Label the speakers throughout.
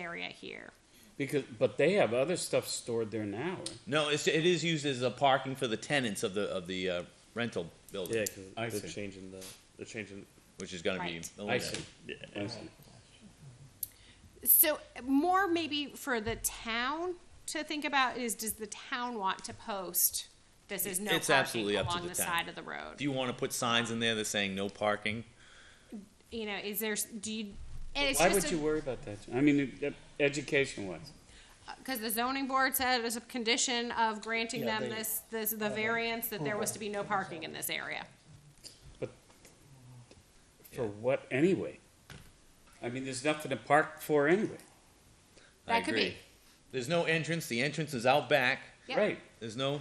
Speaker 1: area here.
Speaker 2: Because, but they have other stuff stored there now. right?
Speaker 3: No, it's, it is used as a parking for the tenants of the, of the uh, rental
Speaker 4: Yeah,
Speaker 3: building,
Speaker 2: I
Speaker 4: because they're
Speaker 2: see.
Speaker 4: changing the, they're changing,
Speaker 3: which is gonna be
Speaker 1: Right.
Speaker 2: I
Speaker 3: eliminated.
Speaker 2: see.
Speaker 4: yeah.
Speaker 2: I see.
Speaker 1: So more maybe for the town to think about is, does the town want to post? This is no
Speaker 3: It's
Speaker 1: parking
Speaker 3: absolutely up to
Speaker 1: along the
Speaker 3: the town.
Speaker 1: side of the road.
Speaker 3: Do you wanna put signs in there that saying no parking?
Speaker 1: you know, is there, do you, and it's
Speaker 2: Why would
Speaker 1: just,
Speaker 2: you worry about that? I mean, education wise.
Speaker 1: because the zoning board said it was a condition of granting
Speaker 5: Yeah,
Speaker 1: them
Speaker 5: they-
Speaker 1: this, this,
Speaker 2: Uh-huh.
Speaker 1: the variance that there was to be no parking in this area.
Speaker 2: For what anyway? I mean, there's nothing to park for anyway.
Speaker 3: I
Speaker 1: That could
Speaker 3: agree.
Speaker 1: be.
Speaker 3: There's no entrance, the entrance is out back,
Speaker 1: Yep.
Speaker 2: Right.
Speaker 3: there's no,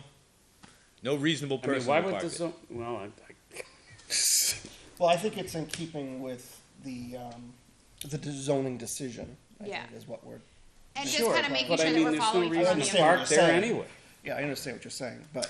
Speaker 3: no reasonable
Speaker 2: I mean,
Speaker 3: person
Speaker 2: why
Speaker 3: would
Speaker 2: would
Speaker 3: park
Speaker 2: the
Speaker 3: it.
Speaker 2: zone, well, I, I,
Speaker 5: Well, I think it's in keeping with the, um, the de- zoning decision, I
Speaker 1: Yeah.
Speaker 5: think is what we're,
Speaker 1: And just
Speaker 5: Sure,
Speaker 1: kind of
Speaker 5: but-
Speaker 1: making
Speaker 2: but I
Speaker 1: sure that
Speaker 2: mean,
Speaker 1: we're
Speaker 2: there's no
Speaker 1: following.
Speaker 2: reason to
Speaker 5: understand what
Speaker 2: park
Speaker 5: you're
Speaker 2: there
Speaker 5: saying.
Speaker 2: anyway.
Speaker 5: yeah, I understand what you're saying, but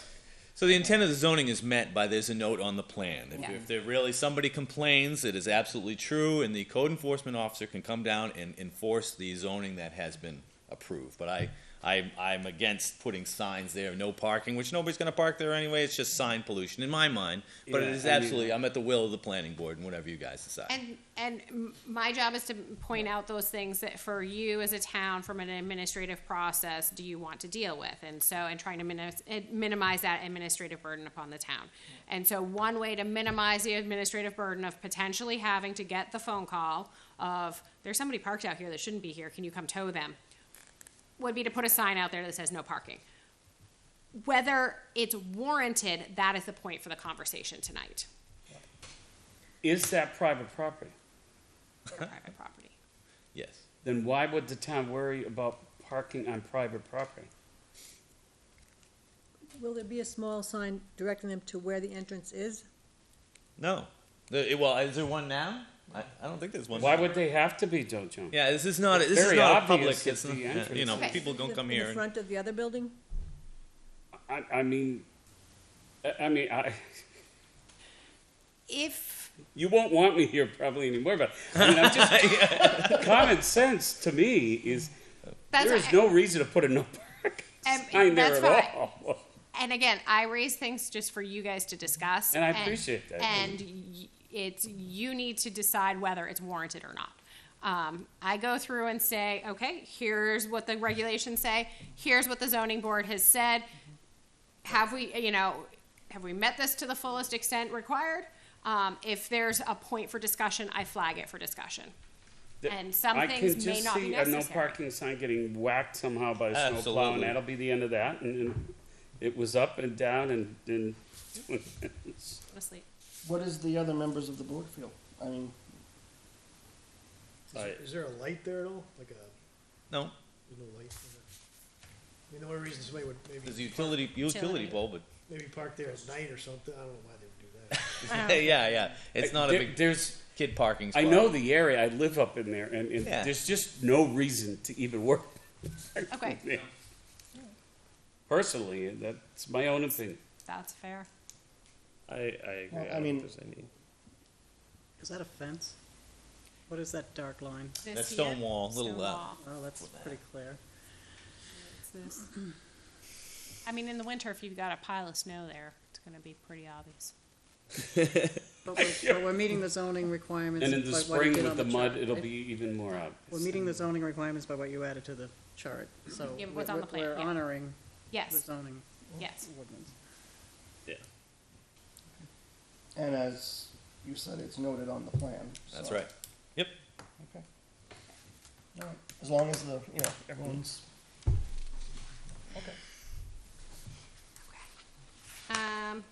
Speaker 3: So the intent of the zoning is met by there's a note on the plan. If,
Speaker 1: Yeah.
Speaker 3: if there really somebody complains, it is absolutely true, and the code enforcement officer can come down and enforce the zoning that has been approved. But I, I, I'm against putting signs there, no parking, which nobody's going to park there anyway. It's just sign pollution in my mind. But it
Speaker 2: Yeah,
Speaker 3: is
Speaker 2: I mean-
Speaker 3: absolutely, I'm at the will of the planning board and whatever you guys decide.
Speaker 1: And, and m- my job is to point out those things that for you as a town, from an administrative process, do you want to deal with? And so, and trying to minimize, minimize that administrative burden upon the town. And so one way to minimize the administrative burden of potentially having to get the phone call of, there's somebody parked out here that shouldn't be here, can you come tow them? Would be to put a sign out there that says no parking. Whether it's warranted, that is the point for the conversation tonight,
Speaker 2: Is that private property?
Speaker 1: for private property.
Speaker 3: yes.
Speaker 2: Then why would the town worry about parking on private property?
Speaker 6: Will there be a small sign directing them to where the entrance is?
Speaker 3: No. The, well, is there one now? I, I don't think there's one.
Speaker 2: Why
Speaker 3: now.
Speaker 2: would they have to be, Joe Jones?
Speaker 3: Yeah, this is not.
Speaker 2: It's
Speaker 3: This is
Speaker 2: very
Speaker 3: not a
Speaker 2: obvious
Speaker 3: public.
Speaker 2: at
Speaker 3: It's
Speaker 2: the
Speaker 3: not, you
Speaker 2: entrance.
Speaker 3: know,
Speaker 1: Okay.
Speaker 3: people don't
Speaker 6: In the-
Speaker 3: come here.
Speaker 6: In the
Speaker 3: and-
Speaker 6: front of the other building?
Speaker 2: I, I mean, I, I mean, I,
Speaker 1: If
Speaker 2: you won't want me here probably anymore, but I mean, I'm just, common sense to me is
Speaker 1: That's
Speaker 2: there is
Speaker 1: I-
Speaker 2: no reason to put a no parking
Speaker 1: And-
Speaker 2: sign there
Speaker 1: that's
Speaker 2: at
Speaker 1: fine.
Speaker 2: all.
Speaker 1: and again, I raise things just for you guys to discuss,
Speaker 2: And I appreciate that.
Speaker 1: And y- it's you need to decide whether it's warranted or not. Um, I go through and say, okay, here's what the regulations say. Here's what the zoning board has said. Have we, you know, have we met this to the fullest extent required? Um, if there's a point for discussion, I flag it for discussion.
Speaker 2: The-
Speaker 1: And some
Speaker 2: I
Speaker 1: things
Speaker 2: can
Speaker 1: may
Speaker 2: just
Speaker 1: not be
Speaker 2: see a no
Speaker 1: necessary.
Speaker 2: parking sign getting whacked somehow by a snowplow,
Speaker 3: Absolutely.
Speaker 2: and that'll be the end of that. And, and it was up and down, and, and
Speaker 1: Honestly,
Speaker 5: what does the other members of the board feel? I mean,
Speaker 7: Is there-
Speaker 4: Alright.
Speaker 7: Is there a light there at all? Like a, there's
Speaker 3: No,
Speaker 7: no light? in there? I mean, the only reason somebody would
Speaker 3: there's a
Speaker 7: maybe,
Speaker 3: utility utility
Speaker 1: Utility.
Speaker 3: bulb,
Speaker 7: maybe park there at night or something. I don't know why they would do that.
Speaker 3: but yeah, yeah, it's not a
Speaker 2: There-
Speaker 3: big
Speaker 2: There's,
Speaker 3: kid parking spot.
Speaker 2: I know the area. I live up in there, and, and
Speaker 3: Yeah.
Speaker 2: there's just no reason to even work.
Speaker 1: okay,
Speaker 2: there. Personally, that's my own opinion.
Speaker 1: that's fair.
Speaker 4: I, I agree.
Speaker 5: Well, I
Speaker 4: I don't
Speaker 5: mean-
Speaker 4: think there's any.
Speaker 8: Is that a fence? What is that dark line?
Speaker 1: This
Speaker 3: That stone
Speaker 1: here?
Speaker 3: wall, little,
Speaker 1: Stone
Speaker 3: uh,
Speaker 1: wall.
Speaker 8: Oh, that's pretty clear.
Speaker 1: It's this. I mean, in the winter, if you've got a pile of snow there, it's gonna be pretty obvious.
Speaker 8: But we're, but we're meeting the zoning requirements.
Speaker 2: And in the
Speaker 8: by what you
Speaker 2: spring
Speaker 8: did
Speaker 2: with
Speaker 8: on
Speaker 2: the mud,
Speaker 8: chart,
Speaker 2: it'll
Speaker 8: right?
Speaker 2: be even more obvious.
Speaker 8: We're meeting the zoning requirements by what you added to the chart, so.
Speaker 1: Yeah, but
Speaker 8: we-
Speaker 1: what's on
Speaker 8: we-
Speaker 1: the plan,
Speaker 8: We're
Speaker 1: yeah.
Speaker 8: honoring the
Speaker 1: Yes,
Speaker 8: zoning
Speaker 1: yes.
Speaker 8: ordinance.
Speaker 4: Yeah.
Speaker 5: and as you said, it's noted on the plan.
Speaker 3: That's
Speaker 5: so-
Speaker 3: right. Yep.
Speaker 5: Okay. All right, as long as the, you know, everyone's, okay.
Speaker 1: Um,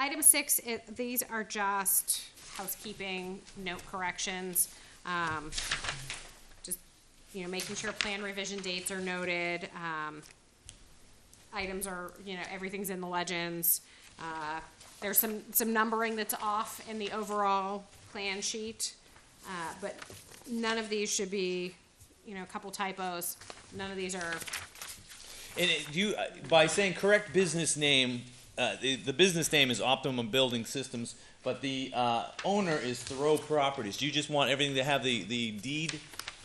Speaker 1: item six, it, these are just housekeeping note corrections. Um, just, you know, making sure plan revision dates are noted, um, items are, you know, everything's in the legends. Uh, There's some, some numbering that's off in the overall plan sheet, uh, but none of these should be, you know, a couple typos. None of these are,
Speaker 3: And it, you, uh, by saying correct business name, uh, the, the business name is Optimum Building Systems, but the uh, owner is Thoreau Properties. Do you just want everything to have the, the deed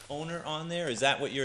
Speaker 3: owner on there? Is that what you're?